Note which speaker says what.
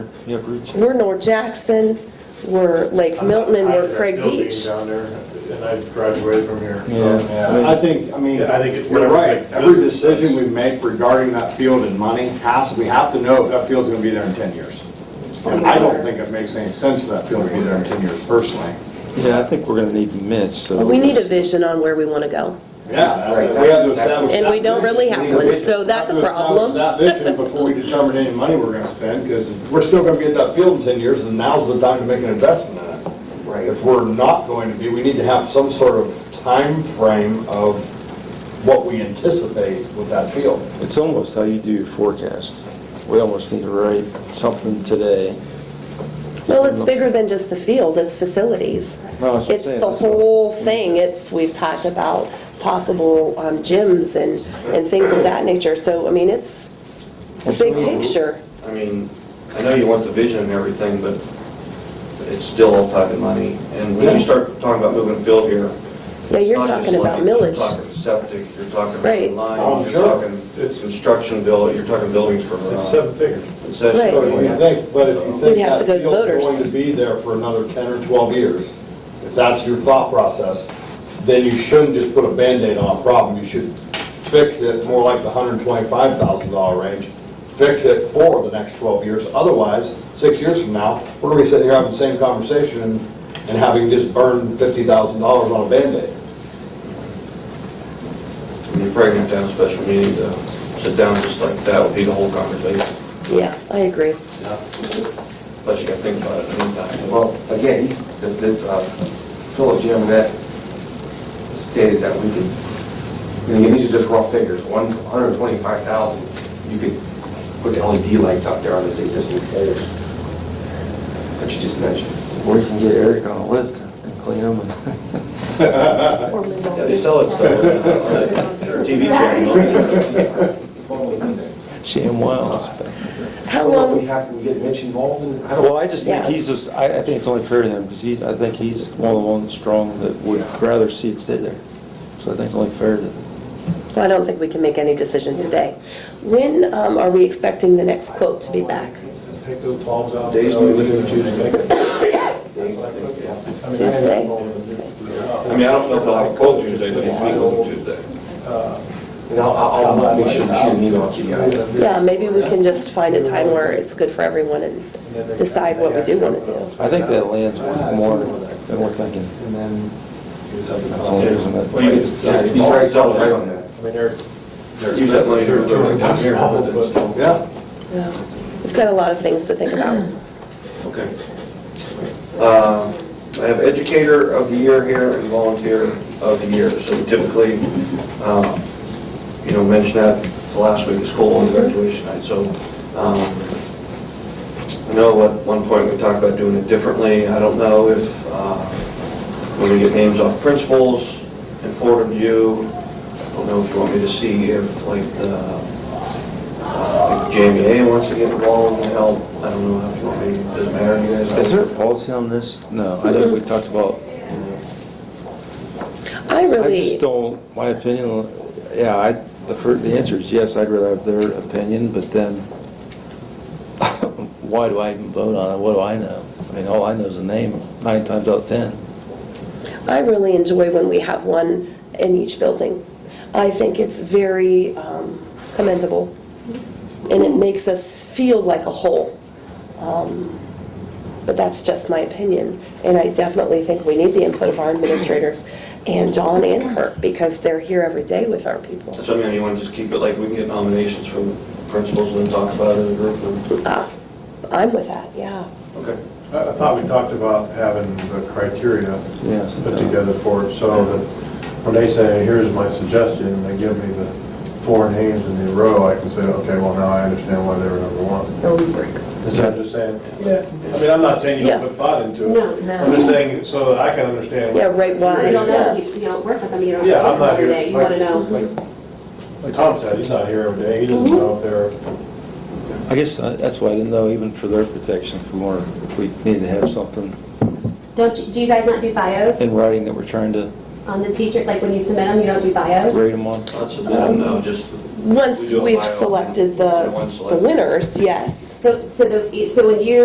Speaker 1: Yeah, Bruce.
Speaker 2: We're North Jackson, we're Lake Milton, and we're Craig Beach.
Speaker 3: I had that building down there, and I graduated from here.
Speaker 1: Yeah.
Speaker 4: I think, I mean,
Speaker 3: Yeah, I think it's
Speaker 4: you're
Speaker 3: whatever
Speaker 4: right.
Speaker 3: makes
Speaker 4: Every
Speaker 3: business sense.
Speaker 4: decision we make regarding that field and money has, we have to know if that field's going to be there in 10 years. And I don't think it makes any sense for that field to be there in 10 years personally.
Speaker 1: Yeah, I think we're gonna need Mitch, so.
Speaker 2: We need a vision on where we want to go.
Speaker 4: Yeah, we have to establish.
Speaker 2: And we
Speaker 4: that
Speaker 2: don't really have
Speaker 4: vision.
Speaker 2: one,
Speaker 4: We need
Speaker 2: so that's a problem.
Speaker 4: We have to establish that vision before we determine any money we're going to spend, because we're still going to get that field in 10 years, and now's the time to make an investment in it.
Speaker 5: Right.
Speaker 4: If we're not going to be, we need to have some sort of time frame of what we anticipate with that field.
Speaker 1: It's almost how you do forecast. We almost need to write something today.
Speaker 2: Well, it's bigger than just the field, it's facilities.
Speaker 1: No, that's what I'm
Speaker 2: It's
Speaker 1: saying.
Speaker 2: the whole thing, it's, we've talked about possible um, gyms and, and things of that nature, so, I mean, it's a big picture.
Speaker 5: I mean, I know you want the vision and everything, but it's still all tied to money. And when
Speaker 4: Yeah.
Speaker 5: you start talking about moving a field here.
Speaker 2: Yeah,
Speaker 5: it's
Speaker 2: you're
Speaker 5: not just
Speaker 2: talking about
Speaker 5: like- You're
Speaker 2: millage.
Speaker 5: talking septic, you're talking
Speaker 2: Right.
Speaker 5: about
Speaker 4: Oh,
Speaker 5: line, you're
Speaker 4: sure.
Speaker 5: talking construction bill, you're talking buildings for. uh,
Speaker 3: It's seven figures.
Speaker 5: it says-
Speaker 2: Right.
Speaker 4: But if you think, but if you
Speaker 2: We'd
Speaker 4: think
Speaker 2: have
Speaker 4: that
Speaker 2: to go to
Speaker 4: field's
Speaker 2: voters.
Speaker 4: going to be there for another 10 or 12 years, if that's your thought process, then you shouldn't just put a Band-Aid on a problem. You should fix it more like the $125,000 range, fix it for the next 12 years. Otherwise, six years from now, we're going to be sitting here having the same conversation and having just burned $50,000 on a Band-Aid.
Speaker 5: You're probably gonna have to have a special meeting to sit down just like that would be the whole conversation.
Speaker 2: Yeah, I agree.
Speaker 5: Plus you gotta think about it in the meantime.
Speaker 6: Well, again, he's, th- this, uh, Philip Jim that stated that we could, and again, these are just raw figures, one hundred and twenty-five thousand, you could put LED lights out there on this existing pole that you just mentioned.
Speaker 1: We can get Eric on a lift and clean him. and-
Speaker 5: Yeah, they sell it still on the TV channel.
Speaker 1: Shame well.
Speaker 2: How
Speaker 6: I don't know if
Speaker 2: long,
Speaker 6: we have to get Mitch involved in, I don't.
Speaker 1: Well, I just think
Speaker 2: Yeah.
Speaker 1: he's just, I, I think it's only fair to him, because he's, I think he's one of the ones strong that would rather see it stay there. So I think it's only fair to
Speaker 2: well, I don't think we can make any decision today. When um, are we expecting the next quote to be back?
Speaker 3: Take those bulbs out.
Speaker 5: Days we live in
Speaker 3: I mean, I
Speaker 2: Tuesday.
Speaker 5: I mean, I don't know if I'll have a quote Tuesday, but it's me going Tuesday.
Speaker 6: And I'll, I'll I'll make sure that you need on TDI.
Speaker 2: Yeah, maybe we can just find a time where it's good for everyone and decide what we do want to do.
Speaker 1: I think that land's worth more than we're thinking.
Speaker 3: And then use up the
Speaker 1: That's all,
Speaker 3: cost.
Speaker 1: isn't it?
Speaker 5: Well, you can sell it. You can sell it right on that.
Speaker 3: I mean, they're, they're.
Speaker 5: Use that money to-
Speaker 3: They're awful, but-
Speaker 4: Yeah.
Speaker 2: Yeah. We've got a lot of things to think about.
Speaker 5: Okay. Uh, I have educator of the year here and volunteer of the year. So we typically, um, you know, mention that the last week of school and graduation night. So um, I know at one point we talked about doing it differently. I don't know if, uh, when we get names off principals and forward of you, I don't know if you want me to see if like the uh, like JMA wants to get involved and help. I don't know if you want me, doesn't matter to you guys.
Speaker 1: Is there a policy on this? No, I think we talked about,
Speaker 2: I
Speaker 1: I
Speaker 2: really,
Speaker 1: just don't, my opinion, yeah, I, the first, the answer is yes, I'd rather have their opinion, but then, why do I even vote on it? What do I know? I mean, all I know is the name, nine times out of 10.
Speaker 2: I really enjoy when we have one in each building. I think it's very um, commendable, and it makes us feel like a whole. Um, But that's just my opinion, and I definitely think we need the input of our administrators and John and Kurt, because they're here every day with our people.
Speaker 5: So, I mean, you want to just keep it like we can get nominations from principals and then talk about it in a group? and-
Speaker 2: Ah, I'm with that, yeah.
Speaker 5: Okay.
Speaker 3: I I thought we talked about having the criteria
Speaker 1: Yes.
Speaker 3: put together for it, so that when they say, here's my suggestion, and they give me the four names in a row, I can say, okay, well, now I understand why they were number one.
Speaker 2: No breaker.
Speaker 3: Instead of just saying, yeah, I mean, I'm not saying you
Speaker 2: Yeah.
Speaker 3: don't put thought into it.
Speaker 7: No, no.
Speaker 3: I'm just saying, so that I can understand.
Speaker 2: Yeah, right, why?
Speaker 7: You don't know, you you don't work with them, you don't
Speaker 3: Yeah, I'm
Speaker 7: have
Speaker 3: not
Speaker 7: to every
Speaker 3: here.
Speaker 7: day, you want to know.
Speaker 3: like- Like Tom said, he's not here every day, he doesn't
Speaker 7: Mhm.
Speaker 3: know if they're
Speaker 1: I guess uh, that's why I didn't know, even for their protection, if we want, if we need to have something
Speaker 7: Don't, you- do you guys not do bios
Speaker 1: in writing that we're trying to
Speaker 7: on the teacher, like when you submit them, you don't do bios?
Speaker 1: grade them on.
Speaker 5: Not submit them, no, just.
Speaker 2: Once
Speaker 5: We do a
Speaker 2: we've
Speaker 5: bio.
Speaker 2: selected the
Speaker 5: Yeah, once
Speaker 2: the
Speaker 5: selected.
Speaker 2: winners, yes.
Speaker 7: So, so the, so when you